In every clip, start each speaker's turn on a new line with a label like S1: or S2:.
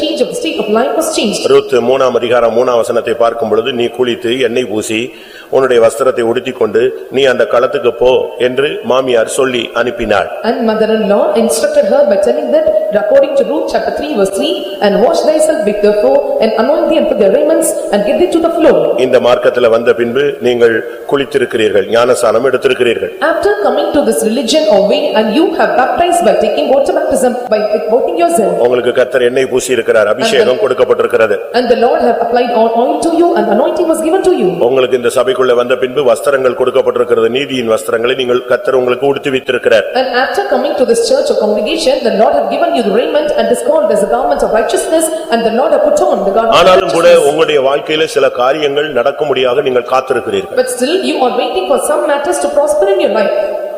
S1: change of the state of life was changed.
S2: Ruth மூணாம் அதிகாரம் மூணாம் வசனத்தை பார்க்கும் பொழுது நீ குளித்து எண்ணெய் பூசி உன்னுடைய வஸ்திரத்தை உடுத்திக்கொண்டு நீ அந்த களத்துக்கு போ என்று மாமியார் சொல்லி அனுப்பினாள்
S1: And mother-in-law instructed her by telling that according to Ruth chapter 3 verse 3, "And wash thyself with therefore, and anoint thee and put thy raiments, and get thee to the floor."
S2: இந்த மார்க்கத்துல வந்த பின்பு நீங்கள் குளித்திருக்கிறீர்கள் ஞானசானம் எடுத்திருக்கிறீர்கள்
S1: After coming to this religion or way, and you have baptized by taking water baptism, by devoting yourself,
S2: உங்களுக்கு கத்தர் எண்ணெய் பூசி இருக்கிறார் அபிஷேகம் கொடுக்கப்பட்டிருக்கிறது
S1: and the Lord have applied all oil to you, and anointing was given to you.
S2: உங்களுக்கு இந்த சபைக்குள்ள வந்த பின்பு வஸ்திரங்கள் கொடுக்கப்பட்டிருக்கிறது நீதியின் வஸ்திரங்களை நீங்கள் கத்தர் உங்களுக்கு உடுத்தி வைத்திருக்கிறார்
S1: And after coming to this church or congregation, the Lord have given you the raiment and is called as the garment of righteousness and the Lord have put on the garment of
S2: ஆனாலும் கூட
S1: righteousness.
S2: உங்களுடைய வாழ்க்கையில சில காரியங்கள் நடக்கும்படியாக நீங்கள் காத்திருக்கிறீர்கள்
S1: But still you are waiting for some matters to prosper in your life.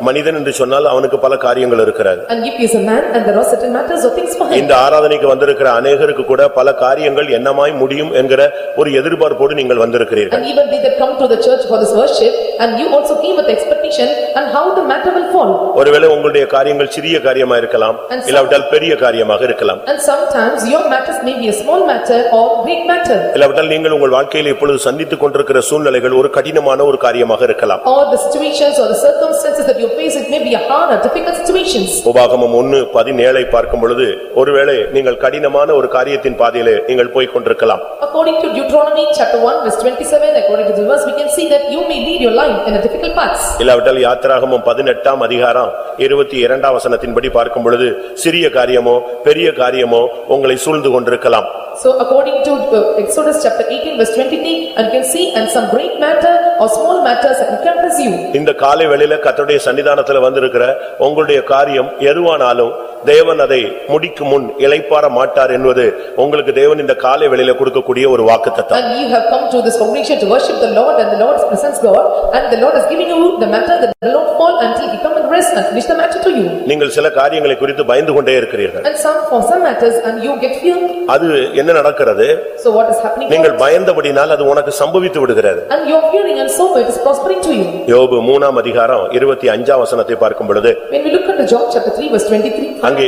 S2: மனிதன் என்று சொன்னால் அவனுக்கு பல காரியங்கள் இருக்கிறது
S1: And if he is a man and there are certain matters or things for him.
S2: இந்த ஆராதனைக்கு வந்திருக்கிற அநேகருக்கு கூட பல காரியங்கள் என்னமாய் முடியும் என்கிற ஒரு எதிர்பார்ப்போடு நீங்கள் வந்திருக்கிறீர்கள்
S1: And even they that come to the church for this worship and you also came with expectation and how the matter will fall.
S2: ஒருவேளை உங்களுடைய காரியங்கள் சிறிய காரியமா இருக்கலாம் இல்லாவிட்டால் பெரிய காரியமாக இருக்கலாம்
S1: And sometimes your matters may be a small matter or great matter.
S2: இல்லாவிட்டால் நீங்கள் உங்கள் வாழ்க்கையில இப்பொழுது சந்தித்துக் கொண்டிருக்கிற சூழ்நிலைகள் ஒரு கடினமான ஒரு காரியமாக இருக்கலாம்
S1: Or the situations or the circumstances that you face, it may be a hard or difficult situations.
S2: உபாகமம் ஒன்னு பதினேழை பார்க்கும் பொழுது ஒருவேளை நீங்கள் கடினமான ஒரு காரியத்தின் பாதையிலே நீங்கள் போய்க் கொண்டிருக்கலாம்
S1: According to Deuteronomy chapter 1 verse 27, according to the verse, we can see that you may lead your life in a difficult path.
S2: இல்லாவிட்டால் யாத்திராகமம் பதினெட்டாம் அதிகாரம் இருபத்தி இரண்டாம் வசனத்தின்படி பார்க்கும் பொழுது சிறிய காரியமோ பெரிய காரியமோ உங்களை சூழ்ந்து கொண்டிருக்கலாம்
S1: So according to uh, Exodus chapter 18 verse 23, and you can see and some great matter or small matters encompass you.
S2: இந்த காலை வெளியில கர்த்தருடைய சன்னிதானத்துல வந்திருக்கிற உங்களுடைய காரியம் எதுவானாலும் தேவன் அதை முடிக்கும் முன் இளைப்பாற மாட்டார் என்பது உங்களுக்கு தேவன் இந்த காலை வெளியில கொடுக்கக்கூடிய ஒரு வாக்குத்தத்தம்
S1: And you have come to this congregation to worship the Lord and the Lord presents God and the Lord has given you the matter that will not fall until he come and rest and finish the matter to you.
S2: நீங்கள் சில காரியங்களை குறித்து பயந்து கொண்டே இருக்கிறீர்கள்
S1: And some for some matters and you get fear.
S2: அது என்ன நடக்கிறது
S1: So what is happening?
S2: நீங்கள் பயந்தபடினால் அது உனக்கு சம்பவித்து விடுகிறது
S1: And you are fearing and so it is prospering to you.
S2: யோபு மூணாம் அதிகாரம் இருபத்தி அஞ்சாம் வசனத்தை பார்க்கும் பொழுது
S1: When we look at the Job chapter 3 verse 23.
S2: அங்கே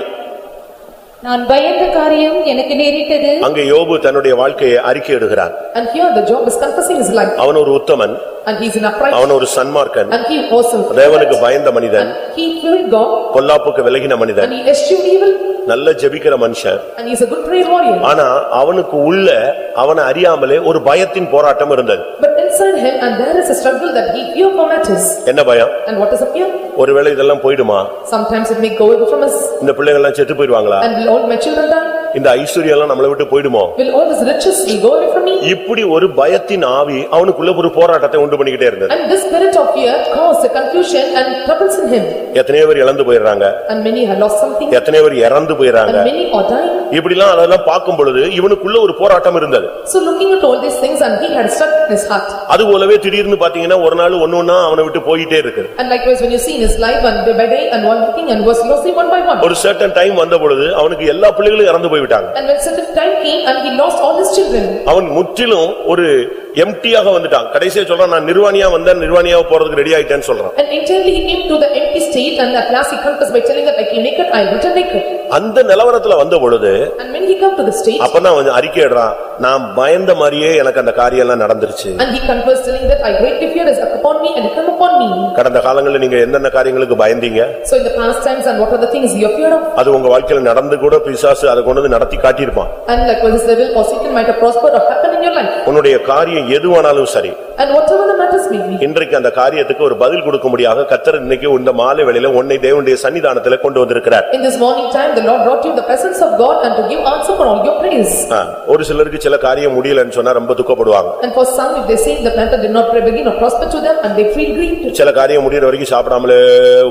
S3: நான் பயந்த காரியம் எனக்கு நேரிட்டது
S2: அங்கே யோபு தன்னுடைய வாழ்க்கையை அறிக்கையிடுகிறான்
S1: And here the Job is confessing his life
S2: அவன் ஒரு உத்தமன்
S1: and he is an upright
S2: அவன் ஒரு சன்மார்க்கன்
S1: and he also
S2: தேவனுக்கு பயந்த மனிதன்
S1: he feared God
S2: பொல்லாப்புக்கு விலகின மனிதன்
S1: and he eschewed evil
S2: நல்ல ஜெபிக்கிற மனுஷன்
S1: and he is a good prayer warrior.
S2: ஆனா அவனுக்கு உள்ள அவன அறியாமலே ஒரு பயத்தின் போராட்டம் இருந்தது
S1: But inside him and there is a struggle that he fear for matters.
S2: என்ன பயம்
S1: And what is a fear?
S2: ஒருவேளை இதெல்லாம் போயிடுமா
S1: Sometimes it may go away from us
S2: இந்த பிள்ளைங்க எல்லாம் செத்து போயிடுவாங்களா
S1: and will all my children die?
S2: இந்த ஐஸ்வர்யம் எல்லாம் நம்மளை விட்டு போயிடுமோ
S1: Will all these riches will go away from me?
S2: இப்படி ஒரு பயத்தின் ஆவி அவனுக்குள்ள ஒரு போராட்டத்தை உண்டு பண்ணிக்கிட்டே இருந்தது
S1: And this spirit of fear caused a confusion and troubles in him.
S2: எத்தனையோ பேர் இழந்து போயிடுறாங்க
S1: And many have lost something
S2: எத்தனையோ பேர் இறந்து போயிடுறாங்க
S1: and many are dying.
S2: இப்படிலாம் அதெல்லாம் பார்க்கும் பொழுது இவனுக்குள்ள ஒரு போராட்டம் இருந்தது
S1: So looking at all these things and he had struck in his heart.
S2: அது போலவே திடீர்னு பாத்தீங்கன்னா ஒரு நாள் ஒன்னொன்னா அவனை விட்டு போயிட்டே இருக்கு
S1: And likewise, when you see in his life and day by day and one thing and was losing one by one.
S2: ஒரு சர்டன் டைம் வந்த பொழுது அவனுக்கு எல்லா பிள்ளைகளும் இறந்து போய்விட்டாங்க
S1: And when certain time came and he lost all his children.
S2: அவன் முற்றிலும் ஒரு எம்டியாக வந்துட்டான் கடைசியா சொல்றான் நான் நிர்வாணியா வந்தேன் நிர்வாணியா போறதுக்கு ரெடி ஆயிட்டேன்னு சொல்றான்
S1: And entirely he came to the empty state and at last he confessed by telling that I came naked, I returned naked.
S2: அந்த நிலவரத்துல வந்த பொழுது
S1: And when he come to the state
S2: அப்பதான் அவன் அறிக்கையிடுறான் நான் பயந்த மாதிரியே எனக்கு அந்த காரியம் எல்லாம் நடந்துருச்சு
S1: and he confessed telling that I greatly fear is upon me and it come upon me.
S2: கடந்த காலங்களில் நீங்க என்னென்ன காரியங்களுக்கு பயந்தீங்க
S1: So in the past times and what are the things you are feared of?
S2: அது உங்க வாழ்க்கையில நடந்து கூட பிசாசு அதை கொண்டு வந்து நடத்தி காட்டியிருப்பான்
S1: And likewise, his devil or Satan might have prospered or happened in your life.
S2: உன்னுடைய காரியம் எதுவானாலும் சரி
S1: And whatever the matters may be.
S2: இன்றைக்கு அந்த காரியத்துக்கு ஒரு பதில் கொடுக்கும்படியாக கத்தர் இன்னைக்கு இந்த மாலை வேளையில உன்னை தேவனுடைய சன்னிதானத்துல கொண்டு வந்திருக்கிறார்
S1: In this morning time, the Lord brought you the presence of God and to give answer for all your prayers.
S2: ஆ, ஒரு சிலருக்கு சில காரியம் முடியலன்னு சொன்னா ரொம்ப துக்கப்படுவாங்க
S1: And for some, if they say the matter did not begin or prosper to them and they feel grieved.
S2: சில காரியம் முடியற வரைக்கும் சாப்பிடாமலே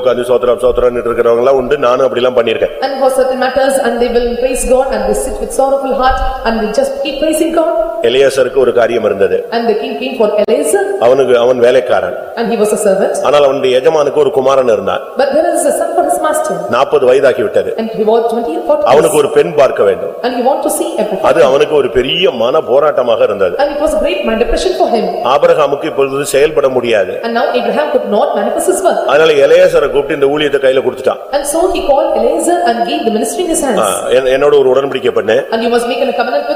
S2: உட்கார்ந்து சோத்திரம் சோத்திரம்னு இருக்கிறவங்க எல்லாம் உண்டு நானும் அப்படிலாம் பண்ணியிருக்கேன்
S1: And for certain matters and they will praise God and they sit with sorrowful heart and they just keep praising God.
S2: எலியாசருக்கு ஒரு காரியம் இருந்தது
S1: And the king came for Eliezer place
S2: அவனுக்கு அவன் வேலைக்காரன்
S1: and he was a servant.
S2: ஆனால் அவனுடைய எஜமானுக்கு ஒரு குமாரன் இருந்தான்
S1: But there is a son for his master
S2: நாற்பது வயதாகி விட்டது
S1: and he was twenty years old
S2: அவனுக்கு ஒரு பெண் பார்க்க வேண்டும்
S1: and he want to see everything.
S2: அது அவனுக்கு ஒரு பெரிய மன போராட்டமாக இருந்தது
S1: And it was a great mind depression for him
S2: ஆபிரகாமுக்கு இப்பொழுது செயல்பட முடியாது
S1: and now Abraham could not manifest his work.
S2: அதனால எலையாசரை கூப்பிட்டு இந்த ஊழியத்தை கையில கொடுத்துட்டான்
S1: And so he called Eliezer and gave the ministry in his
S2: ah,
S1: hands.
S2: என்- என்னோட ஒரு உடன்படிக்கை பண்ணு
S1: And you must make a covenant with